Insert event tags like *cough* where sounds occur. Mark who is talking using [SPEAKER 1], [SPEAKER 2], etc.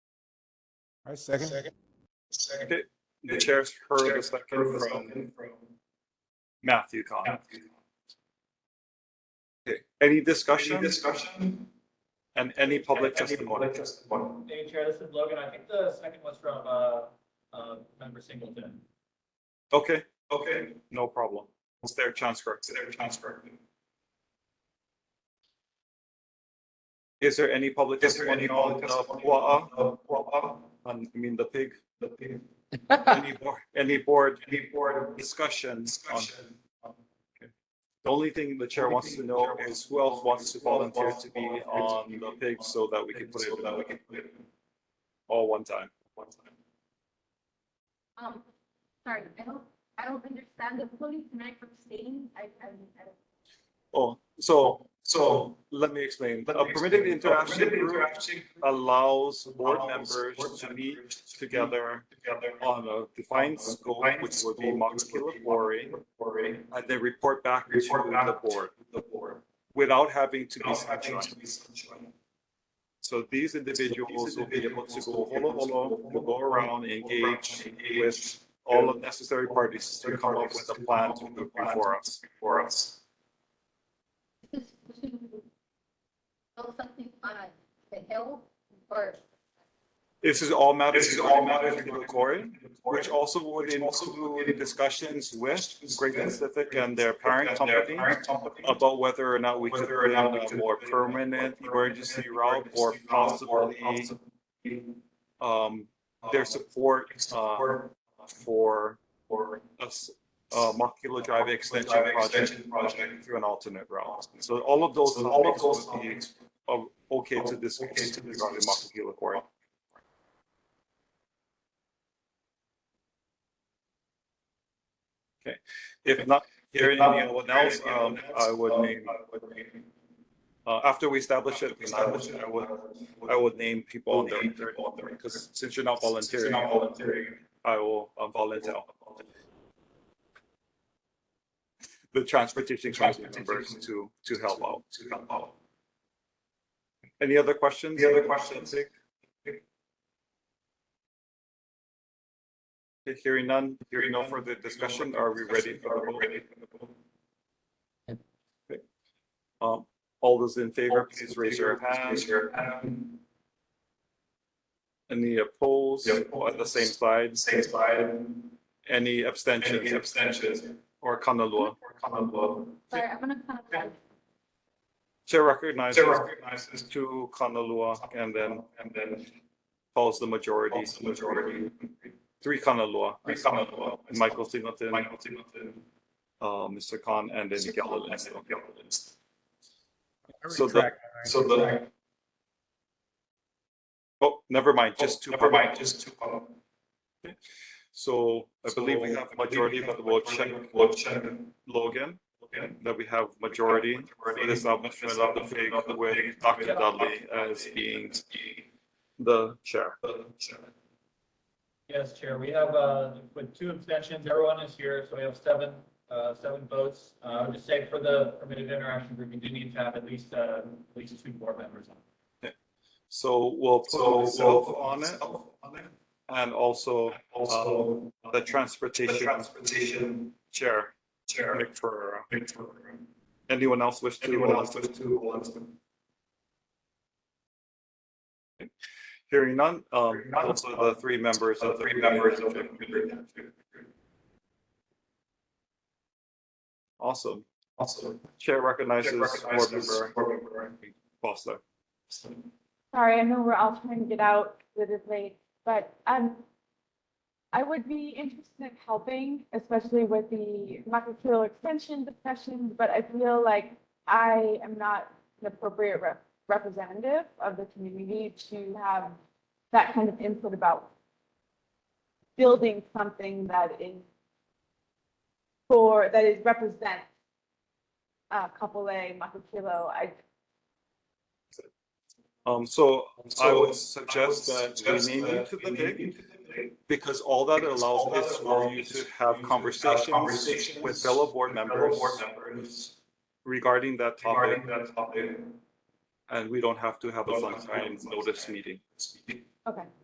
[SPEAKER 1] I second.
[SPEAKER 2] Second.
[SPEAKER 3] The the chair's heard the second from
[SPEAKER 2] Second from
[SPEAKER 3] Matthew Con.
[SPEAKER 2] Matthew.
[SPEAKER 3] Any
[SPEAKER 2] Any
[SPEAKER 3] discussion
[SPEAKER 2] discussion?
[SPEAKER 3] and any public
[SPEAKER 2] Any
[SPEAKER 3] testimony?
[SPEAKER 2] testimony?
[SPEAKER 4] Hey, Chair, this is Logan. I think the second was from, uh, uh, member Singleton.
[SPEAKER 3] Okay,
[SPEAKER 2] Okay,
[SPEAKER 3] no problem. It's their chance for
[SPEAKER 2] it's their transfer.
[SPEAKER 3] Is there any public
[SPEAKER 2] Is there any
[SPEAKER 3] testimony on
[SPEAKER 2] public
[SPEAKER 3] the
[SPEAKER 2] testimony?
[SPEAKER 3] Pua'a?
[SPEAKER 2] Uh, Wa'a,
[SPEAKER 3] On, Um, I mean, the *laughs* pig?
[SPEAKER 2] the big,
[SPEAKER 3] Any board, any board
[SPEAKER 2] any board
[SPEAKER 3] discussions on?
[SPEAKER 2] discussion.
[SPEAKER 3] The only thing the chair wants to know is who else wants to volunteer to be on the pig so that we can put
[SPEAKER 2] So that we
[SPEAKER 3] it
[SPEAKER 2] can put it
[SPEAKER 3] all one time.
[SPEAKER 2] one time.
[SPEAKER 5] Um, sorry, I don't, I don't understand the fully tonight from stating, I, I, I don't.
[SPEAKER 3] Oh, so
[SPEAKER 2] So.
[SPEAKER 3] let me explain. A permitted interaction
[SPEAKER 2] Permitted
[SPEAKER 3] group
[SPEAKER 2] interaction group
[SPEAKER 3] allows board
[SPEAKER 2] allows
[SPEAKER 3] members
[SPEAKER 2] board
[SPEAKER 3] to meet
[SPEAKER 2] members to
[SPEAKER 3] together
[SPEAKER 2] Together.
[SPEAKER 3] on a defined scope, which would be max kilopori,
[SPEAKER 2] Already.
[SPEAKER 3] and they report back to
[SPEAKER 2] Report back
[SPEAKER 3] the board
[SPEAKER 2] The board.
[SPEAKER 3] without having to be
[SPEAKER 2] Now, I think
[SPEAKER 3] sanctioned.
[SPEAKER 2] to be sanctioned.
[SPEAKER 3] So these individuals will be able to go holo holo, will go around, engage with
[SPEAKER 2] Engage
[SPEAKER 3] all the necessary parties to come up with a plan to move before us.
[SPEAKER 2] for us.
[SPEAKER 5] this is to build something on the hill or
[SPEAKER 3] This is all matters.
[SPEAKER 2] This is all matters
[SPEAKER 3] regarding the
[SPEAKER 2] regarding
[SPEAKER 3] Cory,
[SPEAKER 2] Which
[SPEAKER 3] which also
[SPEAKER 2] also
[SPEAKER 3] would
[SPEAKER 2] Which also would
[SPEAKER 3] include
[SPEAKER 2] include
[SPEAKER 3] discussions with
[SPEAKER 2] discussions
[SPEAKER 3] Great
[SPEAKER 2] with
[SPEAKER 3] Pacific and
[SPEAKER 2] and
[SPEAKER 3] their parent company
[SPEAKER 2] about
[SPEAKER 3] about whether or not we could
[SPEAKER 2] whether or
[SPEAKER 3] put in
[SPEAKER 2] not we
[SPEAKER 3] a
[SPEAKER 2] could
[SPEAKER 3] more
[SPEAKER 2] put in a more
[SPEAKER 3] permanent emergency route
[SPEAKER 2] route
[SPEAKER 3] or possibly um, their
[SPEAKER 2] their
[SPEAKER 3] support uh,
[SPEAKER 2] support
[SPEAKER 3] for
[SPEAKER 2] for
[SPEAKER 3] a s- uh, Makila Drive extension project
[SPEAKER 2] project.
[SPEAKER 3] through an alternate route. So all of those
[SPEAKER 2] So all of
[SPEAKER 3] topics
[SPEAKER 2] those
[SPEAKER 3] would be
[SPEAKER 2] topics
[SPEAKER 3] uh, okay to
[SPEAKER 2] Okay
[SPEAKER 3] discuss
[SPEAKER 2] to
[SPEAKER 3] regarding
[SPEAKER 2] discuss.
[SPEAKER 3] Makila Cory. Okay, if not hearing anyone else, um, I would name, uh, after we establish it, I would, I would, I would name people on there. Because since you're not volunteering,
[SPEAKER 2] Not volunteering.
[SPEAKER 3] I will uh, volunteer. The transportation committee members to, to help out.
[SPEAKER 2] To help out.
[SPEAKER 3] Any other questions?
[SPEAKER 2] Any other questions?
[SPEAKER 3] Okay, Hearing none, hearing no further discussion, are we ready for the vote? Um, all those in favor, please raise your hand.
[SPEAKER 2] Raise your hand.
[SPEAKER 3] Any opposed on the same side?
[SPEAKER 2] Same slide.
[SPEAKER 3] Any
[SPEAKER 2] Any
[SPEAKER 3] abstentions
[SPEAKER 2] abstentions?
[SPEAKER 3] or Kanalua?
[SPEAKER 2] Or comment below.
[SPEAKER 5] sorry, I'm gonna kind of like,
[SPEAKER 3] Chair recognizes
[SPEAKER 2] Chair recognizes
[SPEAKER 3] two Kanalua and then
[SPEAKER 2] and then
[SPEAKER 3] calls the majority,
[SPEAKER 2] also majority.
[SPEAKER 3] three Kanalua.
[SPEAKER 2] Three comment below.
[SPEAKER 3] Michael Singleton,
[SPEAKER 2] Michael Singleton.
[SPEAKER 3] uh, Mr. Khan, and then
[SPEAKER 2] Mr.
[SPEAKER 3] Galileo.
[SPEAKER 2] Collins, and Gilliland.
[SPEAKER 3] So the-
[SPEAKER 1] Retract.
[SPEAKER 2] So the,
[SPEAKER 3] Oh, never mind, just
[SPEAKER 2] just
[SPEAKER 3] two.
[SPEAKER 2] to provide, just to.
[SPEAKER 3] So I believe we have majority, but we'll check
[SPEAKER 2] We'll check.
[SPEAKER 3] Logan,
[SPEAKER 2] Okay.
[SPEAKER 3] that we have majority for
[SPEAKER 2] Majority
[SPEAKER 3] the establishment of the pig with Dr. Dudley as being the chair.
[SPEAKER 2] the chair.
[SPEAKER 4] Yes, Chair, we have, uh, with two abstentions, everyone is here, so we have seven, uh, seven votes. Uh, I would just say for the permitted interaction group, you do need to have at least, uh, at least two board members on.
[SPEAKER 3] So we'll put
[SPEAKER 2] So,
[SPEAKER 3] myself
[SPEAKER 2] so.
[SPEAKER 3] on it
[SPEAKER 2] On it.
[SPEAKER 3] and also
[SPEAKER 2] Also.
[SPEAKER 3] Uh, the
[SPEAKER 2] The
[SPEAKER 3] transportation
[SPEAKER 2] transportation
[SPEAKER 3] chair,
[SPEAKER 2] chair.
[SPEAKER 3] Nick Ferrera.
[SPEAKER 2] Victoria.
[SPEAKER 3] Anyone else wish to?
[SPEAKER 2] Anyone else with two
[SPEAKER 3] Hearing none, um,
[SPEAKER 2] Hearing none.
[SPEAKER 3] also the three members
[SPEAKER 2] So
[SPEAKER 3] of
[SPEAKER 2] three members of the.
[SPEAKER 3] Awesome.
[SPEAKER 2] Also.
[SPEAKER 3] Chair recognizes board
[SPEAKER 2] recognizes
[SPEAKER 3] member
[SPEAKER 2] board member.
[SPEAKER 3] Foster.
[SPEAKER 5] sorry, I know we're all trying to get out with it late, but, um, I would be interested in helping, especially with the microfill extension discussions, but I feel like I am not an appropriate rep- representative of the community to have that kind of input about building something that is for, that is represents uh, Kapolei, Makapilo. I,
[SPEAKER 3] Um, so I
[SPEAKER 2] So
[SPEAKER 3] would suggest that we name you to the pig
[SPEAKER 2] pig.
[SPEAKER 3] because all that
[SPEAKER 2] Because all
[SPEAKER 3] allows
[SPEAKER 2] that
[SPEAKER 3] is for
[SPEAKER 2] allows
[SPEAKER 3] you
[SPEAKER 2] is
[SPEAKER 3] to
[SPEAKER 2] for you
[SPEAKER 3] have
[SPEAKER 2] to have
[SPEAKER 3] conversations
[SPEAKER 2] conversations
[SPEAKER 3] with fellow board members
[SPEAKER 2] Board members.
[SPEAKER 3] regarding that topic,
[SPEAKER 2] Regarding that topic.
[SPEAKER 3] and we don't have to have a
[SPEAKER 2] Don't have to have
[SPEAKER 3] sunshine
[SPEAKER 2] a
[SPEAKER 3] notice
[SPEAKER 2] sunshine.
[SPEAKER 3] meeting.
[SPEAKER 5] okay.